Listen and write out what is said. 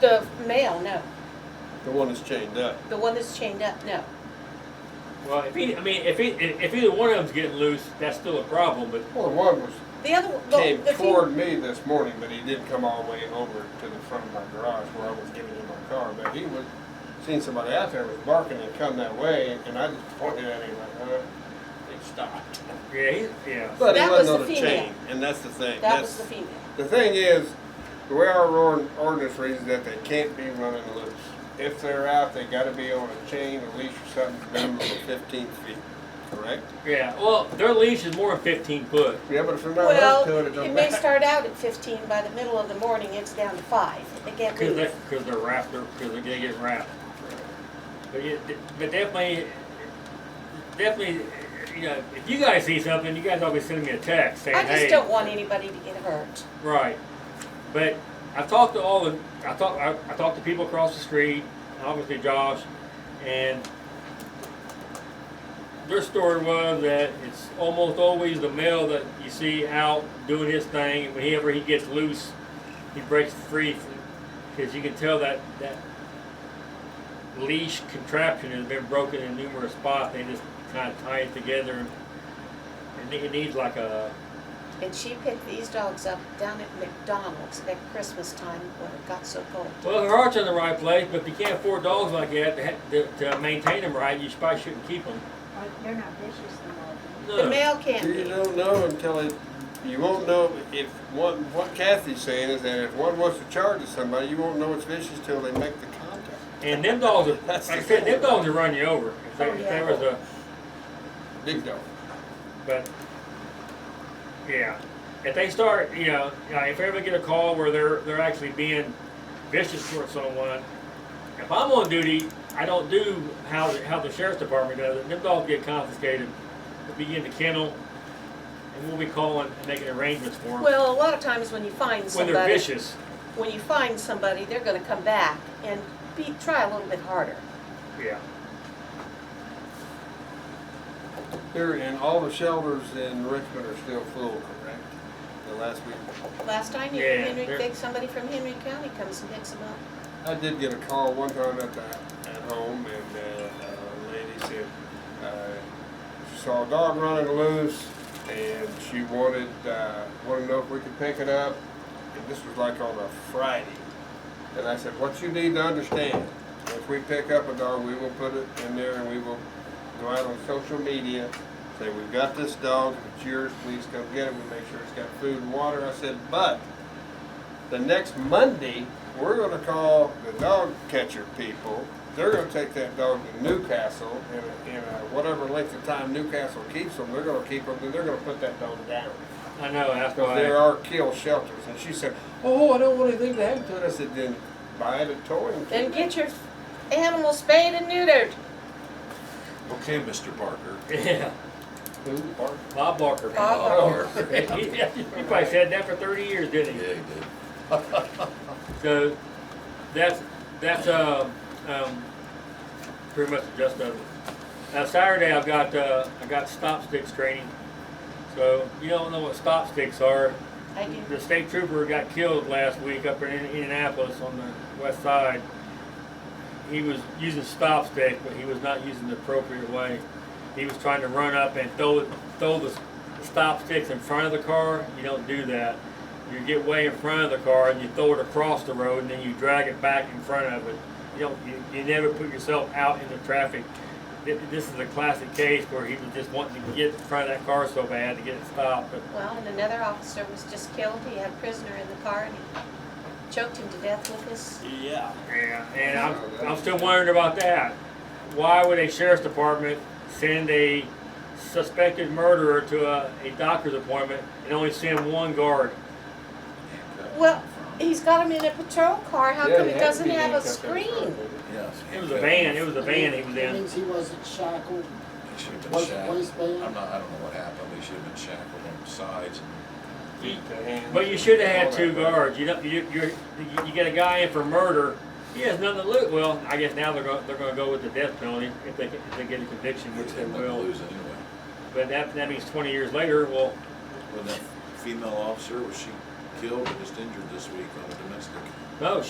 The male, no. The one that's chained up. The one that's chained up, no. Well, if he, I mean, if he, if either one of them's getting loose, that's still a problem, but Well, one was, The other one, well, came the fe- toward me this morning, but he did come all the way over to the front of my garage where I was giving him my car, but he was, seen somebody out there was barking and come that way, and I just pointed at him like, uh, it stopped. yeah, he, yeah. But That it was wasn't on the a female. chain, and that's the thing, that was that's, the female. the thing is, the way our or- ordinance reads is that they can't be running loose. If they're out, they gotta be on a chain, a leash or something, minimum of fifteen feet, correct? Yeah, well, their leash is more than fifteen foot. Yeah, but if they're not hooked to it, it Well, it don't may matter. start out at fifteen, by the middle of the morning, it's down to five. They can't leave. Because they're, because they're wrapped, they're, because they're gonna get wrapped. But yeah, but definitely, definitely, you know, if you guys see something, you guys always send me a text saying, I hey. just don't want anybody to get hurt. Right. But I talked to all the, I talked, I, I talked to people across the street, obviously Josh, and their story was that it's almost always the male that you see out doing his thing, and whenever he gets loose, he breaks free, because you can tell that, that leash contraption has been broken in numerous spots, they just kind of tie it together, and it needs like a, And she picked these dogs up down at McDonald's at Christmas time when it got so cold. Well, their heart's in the right place, but if you can't afford dogs like that to, ha- to, to maintain them right, you probably shouldn't keep them. Well, They're not vicious no more. The No. male can't You be. don't know until it, you won't know if, one, what Kathy's saying is that if one wants to charge at somebody, you won't know it's vicious till they make the contact. And them dogs, are, like That's I the said, thing. them dogs will run you over. If there, Oh, if there yeah. was a, Big dog. but, yeah. If they start, you know, yeah, if I ever get a call where they're, they're actually being vicious towards someone, if I'm on duty, I don't do how, the- how the sheriff's department does it. Them dogs get confiscated, They'll be in the kennel, and we'll be calling and making arrangements for them. Well, a lot of times when you find when they're somebody, vicious. when you find somebody, they're gonna come back and be, try a little bit harder. Yeah. Here, and all the shelters in Richmond are still full, correct? The last week, Last I knew, Yeah, Henry, they're- Vic- somebody from Henry County comes and picks them up. I did get a call one time at the, at home, and uh, a lady said, uh, she saw a dog running loose, and she wanted, uh, wanted to know if we could pick it up, and this was like on a Friday. And I said, what you need to understand, if we pick up a dog, we will put it in there, and we will go out on social media, say, we've got this dog, it's yours, please come get it, we make sure it's got food and water. I said, but the next Monday, we're gonna call the dog catcher people. They're gonna take that dog to Newcastle, and, and uh, whatever length of time Newcastle keeps them, they're gonna keep them, then they're gonna put that dog down. I know, that's Because there why. are kill shelters, and she said, oh, I don't want anything to happen to it. I said, then buy it a toy and Then keep it. get your animal spayed and neutered. Okay, Mr. Barker. Yeah, Who, Bart? Bob Barker. Bob Oh, He he probably said that for thirty years, Yeah, didn't he he? did. So, that's, that's, um, um, pretty much the gist of it. Now Saturday, I've got, uh, I got stop sticks training. So, you don't know what stop sticks are. I do. The state trooper got killed last week up in Indianapolis on the west side. He was using stop stick, but he was not using the appropriate way. He was trying to run up and throw it, throw the stop sticks in front of the car. You don't do that. You get way in front of the car and you throw it across the road and then you drag it back in front of it. You don't, you, you never put yourself out into traffic. Th- This is a classic case where he was just wanting to get in front of that car so bad to get it stopped, but Well, and another officer was just killed. He had a prisoner in the car and he choked him to death with his, Yeah. Yeah, and I'm, I'm still wondering about that. Why would a sheriff's department send a suspected murderer to a, a doctor's appointment and only send one guard? well, he's got him in a patrol car. How Yeah, come he it had to doesn't be have a handcuffed after screen? Yes. It was a van, it was a van he was That in. means he wasn't shackled, He should have been wasn't shackled. I'm waistband. not, I don't know what happened. He should have been shackled on the sides. But you should have had two guards, you know, you, you're, you get a guy in for murder, he has nothing to lose. Well, I guess now they're gonna, they're gonna go with the death penalty if they, if they get a conviction, which Which they they might will. lose anyway. But that, that means twenty years later, well, When that female officer, was she killed or just injured this week on a domestic? no,